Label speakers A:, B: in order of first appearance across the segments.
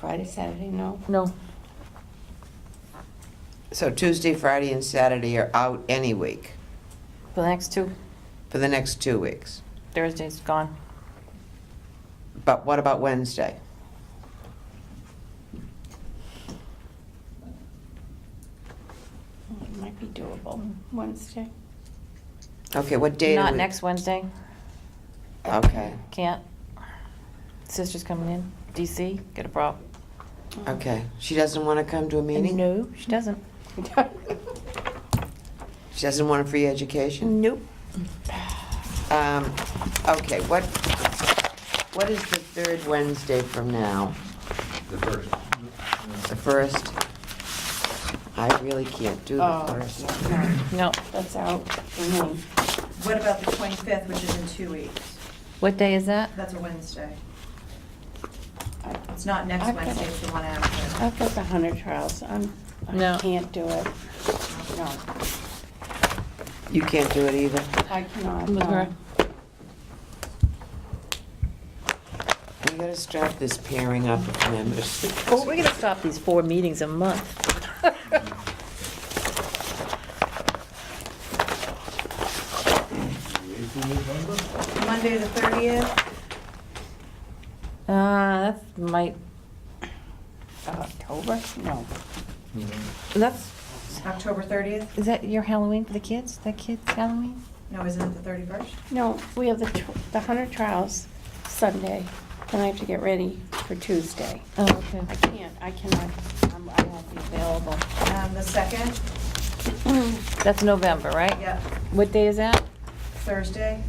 A: Friday, Saturday, no?
B: No,
C: So Tuesday, Friday, and Saturday are out any week
B: for the next two,
C: for the next two weeks.
B: Thursday's gone.
C: But what about Wednesday?
A: It might be doable, Wednesday.
C: Okay, what day? do
B: Not
C: we-
B: next Wednesday,
C: Okay,
B: can't. Sister's coming in, DC, got a problem.
C: okay. She doesn't want to come to a meeting?
B: No, she doesn't.
C: She doesn't want a free education?
B: Nope.
C: Um, okay, what, what is the third Wednesday from now?
D: The first.
C: The first? I really can't do the
A: Oh,
C: first.
A: no,
B: No.
A: that's out. Mhm.
E: What about the 25th, which is in two weeks?
B: What day is that?
E: That's a Wednesday.
A: I-
E: It's not next
A: I've got-
E: Wednesday, it's the one after.
A: I've got the hunter trials, I'm, I
B: No.
A: can't do it. No,
C: You can't do it either?
A: I cannot.
B: With her.
C: We gotta start this pairing up of members.
B: Well, we're gonna stop these four meetings a month.
E: Monday, the 30th,
B: Uh, that's might,
A: Uh, October, no.
B: that's,
E: October 30th?
B: is that your Halloween for the kids? That kid's Halloween?
E: No, isn't it the 31st?
A: No, we have the, tw- the hunter trials Sunday, and I have to get ready for Tuesday.
B: Oh, okay.
A: I can't, I cannot, I'm- I won't be available.
E: Um, The 2nd,
B: Mm. That's November, right?
E: yep,
B: What day is that?
E: Thursday.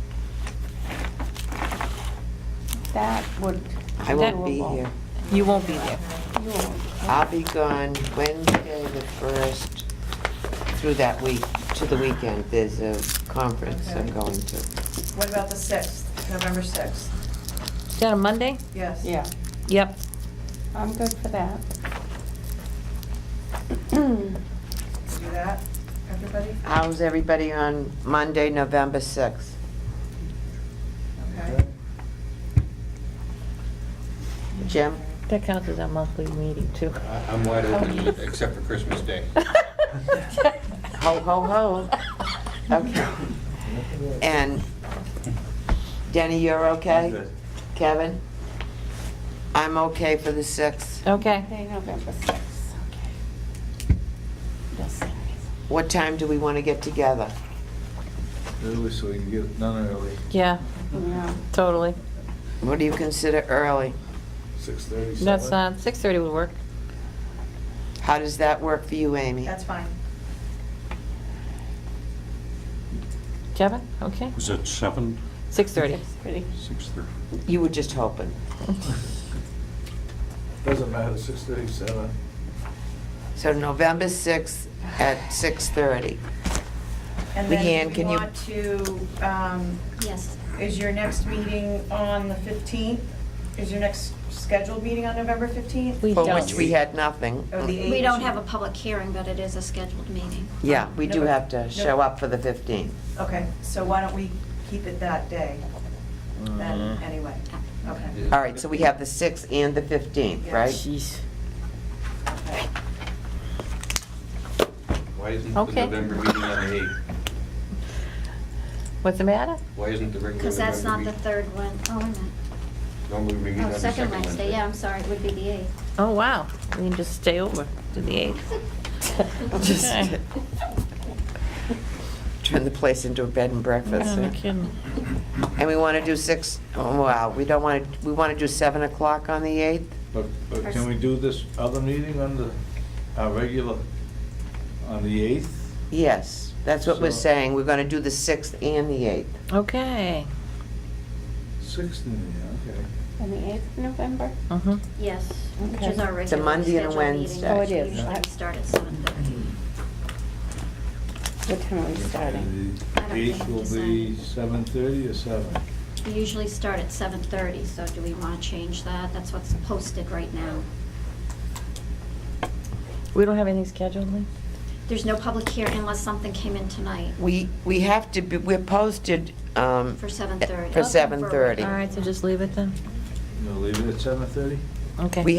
A: That would.
C: I won't be
A: doable.
C: here.
B: You won't be there.
A: You won't.
C: I'll be gone Wednesday, the first, through that week, to the weekend. There's a conference I'm
E: Okay.
C: going to.
E: What about the 6th, November 6th?
B: Is that a Monday?
E: Yes.
A: Yeah,
B: Yep.
A: I'm good for that.
E: Do that, everybody?
C: How's everybody on Monday, November 6th?
E: Okay.
C: Jim?
B: That counts as our monthly meeting, too.
D: I- I'm wide open, except for Christmas Day.
C: Ho, ho, ho. Okay. And Denny, you're okay? Kevin? I'm okay for the 6th.
B: Okay.
A: Okay, November sixth, okay. You'll send me
C: What time do we want to get together?
D: Early, so we can get it done early.
B: Yeah,
A: some- Yeah,
B: totally.
C: What do you consider early?
D: Six thirty.
B: That's, uh, 6:30 would work.
C: How does that work for you, Amy?
E: That's fine.
B: Kevin, okay?
F: Was it seven,
B: 6:30.
A: it's pretty.
F: six thirty?
C: You were just hoping.
G: Doesn't matter, six thirty-seven.
C: So November 6th at 6:30.
E: And then
C: Leanne,
E: we
C: can you-
E: want to, um,
H: Yes,
E: is your next meeting on the 15th? Is your next scheduled meeting on November 15th?
B: We
C: For
B: don't.
C: which we had nothing.
E: Or Oh, the 8th?
H: we don't have a public hearing, but it is a scheduled meeting.
C: Yeah, we do
E: No.
C: have to show up for the 15th.
E: Okay, so why don't we keep it that day, then, anyway? Okay.
C: All right, so we have the 6th and the 15th, right?
B: Jeez.
E: okay.
D: Why isn't the
B: Okay.
D: November meeting on the eighth?
B: What's the matter?
D: Why isn't the regular November meeting?
H: Because that's not the third one. Oh, wait a minute.
D: Normally we meet on
H: Oh,
D: the
H: second Wednesday, yeah, I'm sorry, it would be the eighth.
B: Oh, wow. We can just stay over to the 8th.
C: Just
B: Okay.
C: turn the place into a bed and breakfast.
B: No kidding.
C: And we want to do 6, oh, wow, we don't want to, we want to do 7 o'clock on the 8th?
G: But, but can we do this other meeting on the, our regular, on the eighth?
C: Yes, that's what we're
G: So-
C: saying, we're going to do the 6th and the 8th.
B: Okay.
G: Sixth, yeah, okay.
A: On the eighth of November?
B: Mhm.
H: Yes, which
A: Okay.
H: is our
C: It's a
H: regular
C: Monday and a
H: scheduled meeting.
C: Wednesday.
A: Oh, it is.
H: Usually we start at seven thirty.
A: What time are we starting?
H: I don't
G: The Eighth
H: think
G: will
H: it's
G: be
H: decided.
G: seven thirty or seven?
H: We usually start at seven thirty, so do we want to change that? That's what's posted right now.
B: We don't have anything scheduled, Lee?
H: There's no public hearing unless something came in tonight
C: We, we have to, be we're posted um,
H: for seven thirty.
C: for 7:30.
B: All right, so just leave it then?
G: You gonna leave it at seven thirty?
B: Okay.
C: We